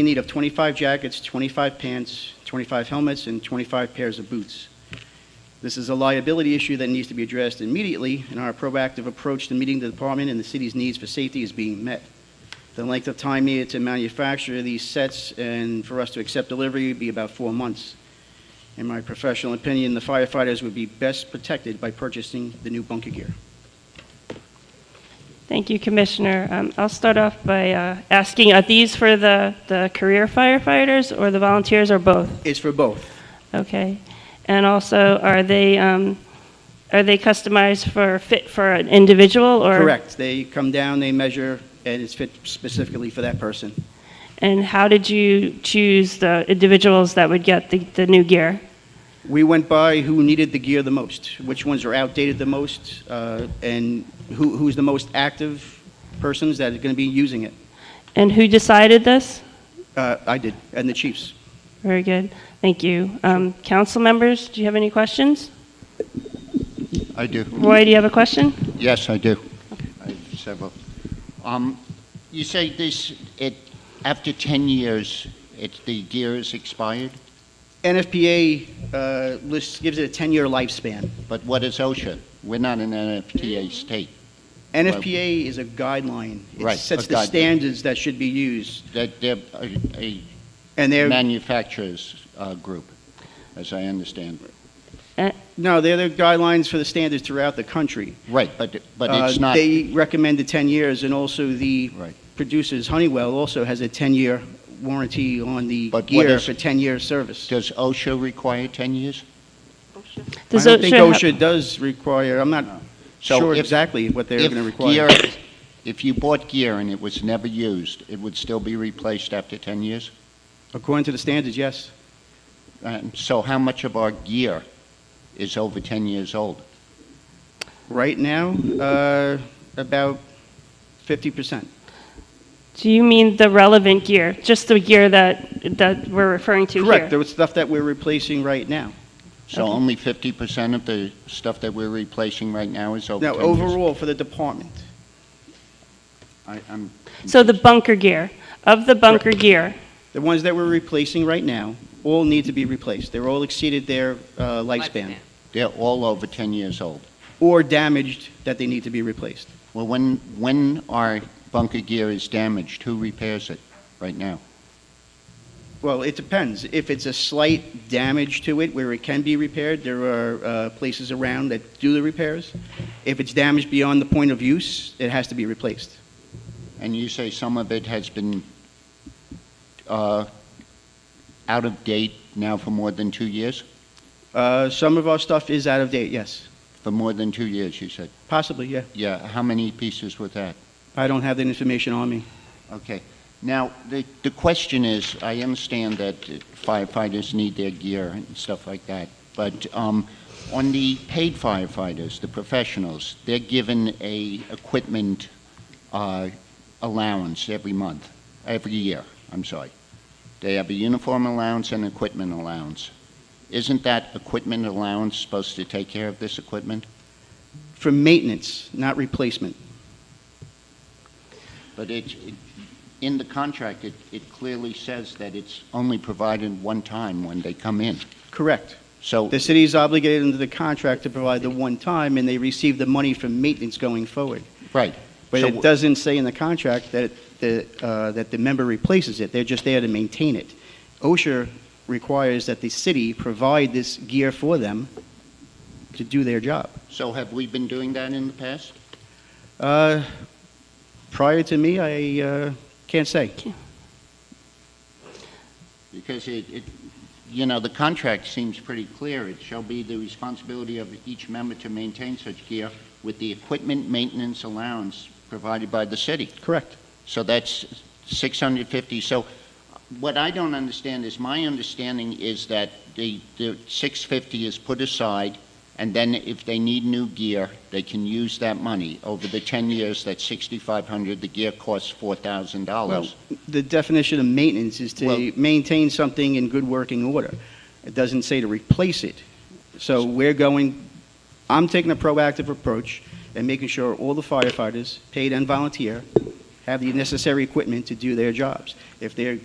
in need of 25 jackets, 25 pants, 25 helmets, and 25 pairs of boots. This is a liability issue that needs to be addressed immediately, and our proactive approach to meeting the department and the city's needs for safety is being met. The length of time needed to manufacture these sets and for us to accept delivery would be about four months. In my professional opinion, the firefighters would be best protected by purchasing the new bunker gear. Thank you, Commissioner. Um, I'll start off by uh, asking, are these for the, the career firefighters or the volunteers or both? It's for both. Okay. And also, are they, um, are they customized for, fit for an individual or? Correct. They come down, they measure, and it's fit specifically for that person. And how did you choose the individuals that would get the, the new gear? We went by who needed the gear the most, which ones are outdated the most, uh, and who, who's the most active persons that are going to be using it. And who decided this? Uh, I did, and the chiefs. Very good. Thank you. Um, Council members, do you have any questions? I do. Roy, do you have a question? Yes, I do. I have several. Um, you say this, it, after 10 years, it, the gear is expired, NFPA uh, lists, gives it a 10-year lifespan. but what is OSHA? We're not an NFTA state. NFPA is a guideline. It Right, sets a the guideline. standards that should be used, That they're a, and a they're, manufacturer's uh, group, as I understand. no, they're the guidelines for the standards throughout the country. Right, but, but it's Uh, not, They recommended 10 years, and also the Right. producers, Honeywell, also has a 10-year warranty on the But what gear is- for 10-year service. does OSHA require 10 years? I Does don't think have- OSHA does require, I'm not So sure if- exactly what they're If going to require. gear- If you bought gear and it was never used, it would still be replaced after 10 years? According to the standards, yes. And so how much of our gear is over 10 years old? Right now, uh, about 50%. Do you mean the relevant gear, just the gear that, that we're referring to here? Correct, there was stuff that we're replacing right now. So Okay. only 50% of the stuff that we're replacing right now is over Now, 10 years? overall, for the department, I- I'm- So the bunker gear, of the bunker gear, the ones that we're replacing right now, all need to be replaced. They're all exceeded their uh, lifespan, They're all over 10 years old. or damaged that they need to be replaced. Well, when, when our bunker gear is damaged, who repairs it right now? Well, it depends. If it's a slight damage to it where it can be repaired, there are uh, places around that do the repairs. If it's damaged beyond the point of use, it has to be replaced. And you say some of it has been uh, out of date now for more than two years? Uh, Some of our stuff is out of date, yes. For more than two years, you said. Possibly, yeah. Yeah, how many pieces were that? I don't have that information on me. Okay. Now, the, the question is, I understand that firefighters need their gear and stuff like that, but um, on the paid firefighters, the professionals, they're given a equipment uh, allowance every month, every year, I'm sorry. They have a uniform allowance and equipment allowance. Isn't that equipment allowance supposed to take care of this equipment? For maintenance, not replacement. But it, it- in the contract, it, it clearly says that it's only provided one time when they come in. Correct. So, The city is obligated under the contract to provide the one time, and they receive the money for maintenance going forward. right. But So it doesn't say in the contract that the, uh, that the member replaces it, they're just there to maintain it. OSHA requires that the city provide this gear for them to do their job. So have we been doing that in the past? Uh, Prior to me, I uh, can't say. Because it, it, you know, the contract seems pretty clear. It shall be the responsibility of each member to maintain such gear with the equipment maintenance allowance provided by the city. Correct. So that's 650. So what I don't understand is, my understanding is that the, the 650 is put aside, and then if they need new gear, they can use that money. Over the 10 years, that's 6,500. The gear costs Well, $4,000. the definition of maintenance is Well- to maintain something in good working order. It doesn't say to replace it. So we're going, I'm taking a proactive approach and making sure all the firefighters, paid and volunteer, have the necessary equipment to do their jobs. If they're